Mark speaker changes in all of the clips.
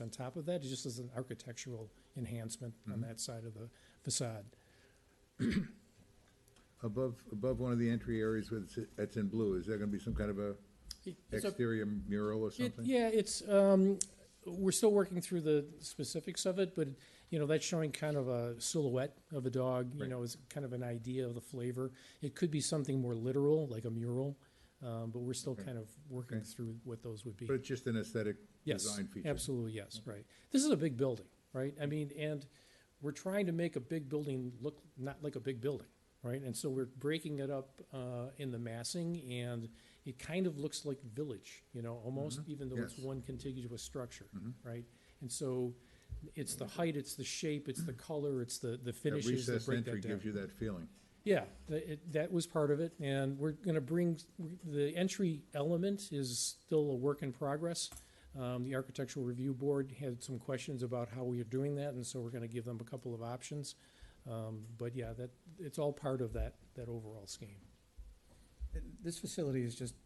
Speaker 1: on top of that, just as an architectural enhancement
Speaker 2: Mm-hmm.
Speaker 1: on that side of the facade.
Speaker 2: Above, above one of the entry areas with, that's in blue, is there gonna be some kind of a
Speaker 1: It's a-
Speaker 2: exterior mural or
Speaker 1: It-
Speaker 2: something?
Speaker 1: Yeah, it's, um, we're still working through the specifics of it, but, you know, that's showing kind of a silhouette of a dog, you
Speaker 2: Right.
Speaker 1: know, is kind of an idea of the flavor. It could be something more literal, like a mural, um, but we're still
Speaker 2: Okay.
Speaker 1: kind of working
Speaker 2: Okay.
Speaker 1: through what those would be.
Speaker 2: But it's just an aesthetic
Speaker 1: Yes,
Speaker 2: design feature?
Speaker 1: Absolutely, yes, right. This is a big building, right? I mean, and we're trying to make a big building look not like a big building, right? And so we're breaking it up uh, in the massing, and it kind of looks like village, you know, almost, even though it's
Speaker 2: Mm-hmm. yes.
Speaker 1: one contiguous structure,
Speaker 2: Mhm.
Speaker 1: right? And so it's the height, it's the shape, it's the color, it's the, the
Speaker 2: That
Speaker 1: finishes that
Speaker 2: recessed
Speaker 1: break
Speaker 2: entry
Speaker 1: that down.
Speaker 2: gives you that feeling.
Speaker 1: Yeah, that, it, that was part of it, and we're gonna bring, the entry element is still a work in progress. Um, the Architectural Review Board had some questions about how we are doing that, and so we're gonna give them a couple of options. Um, but yeah, that, it's all part of that, that overall scheme.
Speaker 3: This facility is just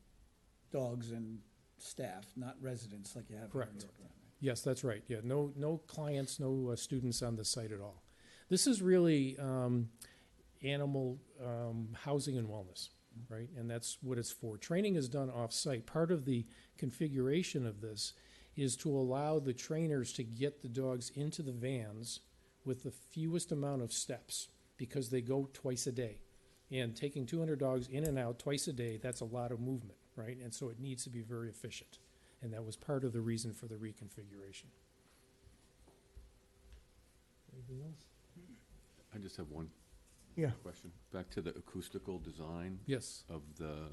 Speaker 3: dogs and staff, not residents like you have in New
Speaker 1: Correct.
Speaker 3: York. down there.
Speaker 1: Yes, that's right, yeah, no, no clients, no uh, students on the site at all. This is really, um, animal, um, housing and wellness, right? And that's what it's for. Training is done off-site. Part of the configuration of this is to allow the trainers to get the dogs into the vans with the fewest amount of steps, because they go twice a day. And taking two hundred dogs in and out twice a day, that's a lot of movement, right? And so it needs to be very efficient. And that was part of the reason for the reconfiguration. Anything else?
Speaker 4: I just have one
Speaker 1: Yeah.
Speaker 4: question. Back to the acoustical design
Speaker 1: Yes.
Speaker 4: of the,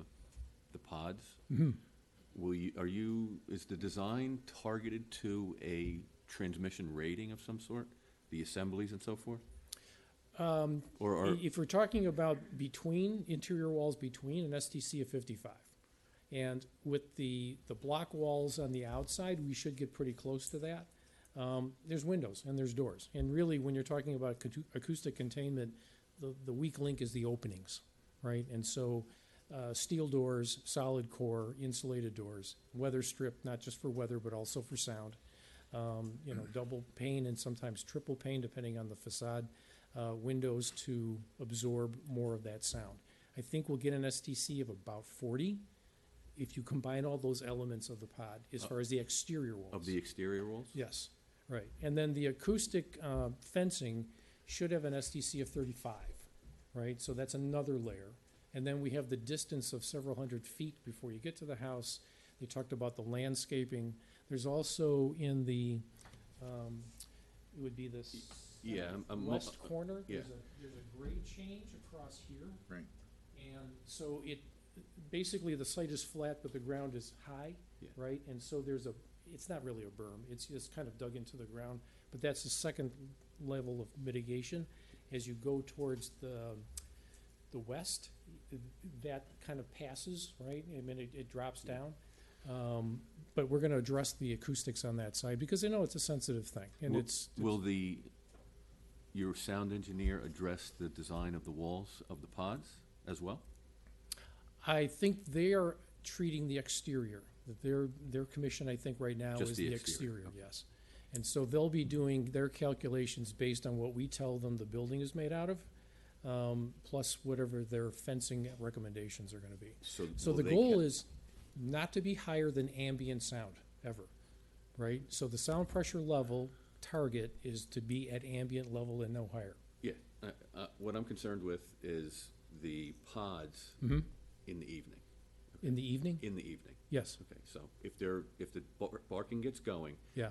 Speaker 4: the pods.
Speaker 1: Mm-hmm.
Speaker 4: Will you, are you, is the design targeted to a transmission rating of some sort? The assemblies and so forth? Um. Or are,
Speaker 1: If we're talking about between, interior walls between, an STC of fifty-five. And with the, the block walls on the outside, we should get pretty close to that. Um, there's windows and there's doors, and really, when you're talking about acou- acoustic containment, the, the weak link is the openings, right? And so, uh, steel doors, solid core, insulated doors, weather strip, not just for weather, but also for sound. Um, you know, double pane and sometimes triple pane, depending on the facade, uh, windows to absorb more of that sound. I think we'll get an STC of about forty if you combine all those elements of the pod, as far as the exterior walls.
Speaker 4: Uh, of the exterior walls?
Speaker 1: Yes, right. And then the acoustic uh, fencing should have an SDC of 35, right? So that's another layer. And then we have the distance of several hundred feet before you get to the house. They talked about the landscaping. There's also in the, um, it would be this
Speaker 4: Yeah, I'm- I'm-
Speaker 1: west corner.
Speaker 4: yeah.
Speaker 1: There's a, there's a grade change across here.
Speaker 2: Right.
Speaker 1: And so it, basically, the site is flat, but the ground is high,
Speaker 4: Yeah.
Speaker 1: right? And so there's a, it's not really a berm, it's just kind of dug into the ground, but that's the second level of mitigation. As you go towards the, the west, that kind of passes, right? I mean, it, it drops down. Um, But we're gonna address the acoustics on that side, because I know it's a sensitive thing, and
Speaker 4: Will-
Speaker 1: it's,
Speaker 4: Will the, your sound engineer address the design of the walls of the pods as well?
Speaker 1: I think they are treating the exterior. That Their, their commission, I think, right now
Speaker 4: Just
Speaker 1: is
Speaker 4: the
Speaker 1: the
Speaker 4: exterior,
Speaker 1: exterior, yes. And so they'll be doing their calculations based on what we tell them the building is made out of, um, plus whatever their fencing recommendations are gonna be. So
Speaker 4: will
Speaker 1: the
Speaker 4: they
Speaker 1: goal
Speaker 4: ca-
Speaker 1: is not to be higher than ambient sound ever, right? So the sound pressure level target is to be at ambient level and no higher.
Speaker 4: Yeah, uh, uh, what I'm concerned with is the pods
Speaker 1: Mm-hmm.
Speaker 4: in the evening,
Speaker 1: In the evening?
Speaker 4: in the evening.
Speaker 1: Yes,
Speaker 4: Okay, so if they're, if the bar- barking gets going
Speaker 1: yeah,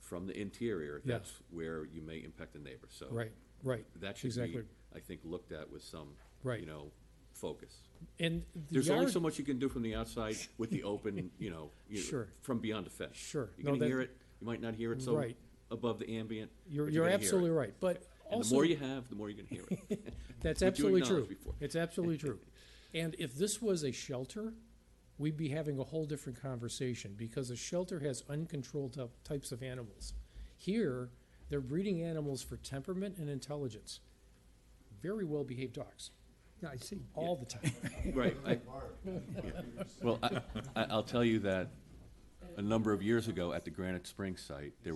Speaker 4: from the interior,
Speaker 1: Yeah.
Speaker 4: that's where you may impact the neighbor, so.
Speaker 1: right, right.
Speaker 4: That should be,
Speaker 1: exactly.
Speaker 4: I think, looked at with some,
Speaker 1: Right.
Speaker 4: you know, focus.
Speaker 1: And the
Speaker 4: There's only
Speaker 1: yard-
Speaker 4: so much you can do from the outside with the open, you know, you-
Speaker 1: Sure.
Speaker 4: from beyond the fence.
Speaker 1: Sure.
Speaker 4: You're
Speaker 1: No,
Speaker 4: gonna
Speaker 1: that-
Speaker 4: hear it, you might not hear it so
Speaker 1: Right.
Speaker 4: above the ambient.
Speaker 1: You're,
Speaker 4: but
Speaker 1: you're
Speaker 4: gonna hear it.
Speaker 1: absolutely right, but
Speaker 4: And the
Speaker 1: also,
Speaker 4: more you have, the more you're gonna hear it.
Speaker 1: that's
Speaker 4: what you
Speaker 1: absolutely true.
Speaker 4: acknowledged before.
Speaker 1: It's absolutely true. And if this was a shelter, we'd be having a whole different conversation, because a shelter has uncontrolled typ- types of animals. Here, they're breeding animals for temperament and intelligence. Very well-behaved dogs,
Speaker 3: Yeah, I see.
Speaker 1: all the time.
Speaker 4: Right. I- yeah. Well, I, I- I'll tell you that a number of years ago at the Granite Springs site, there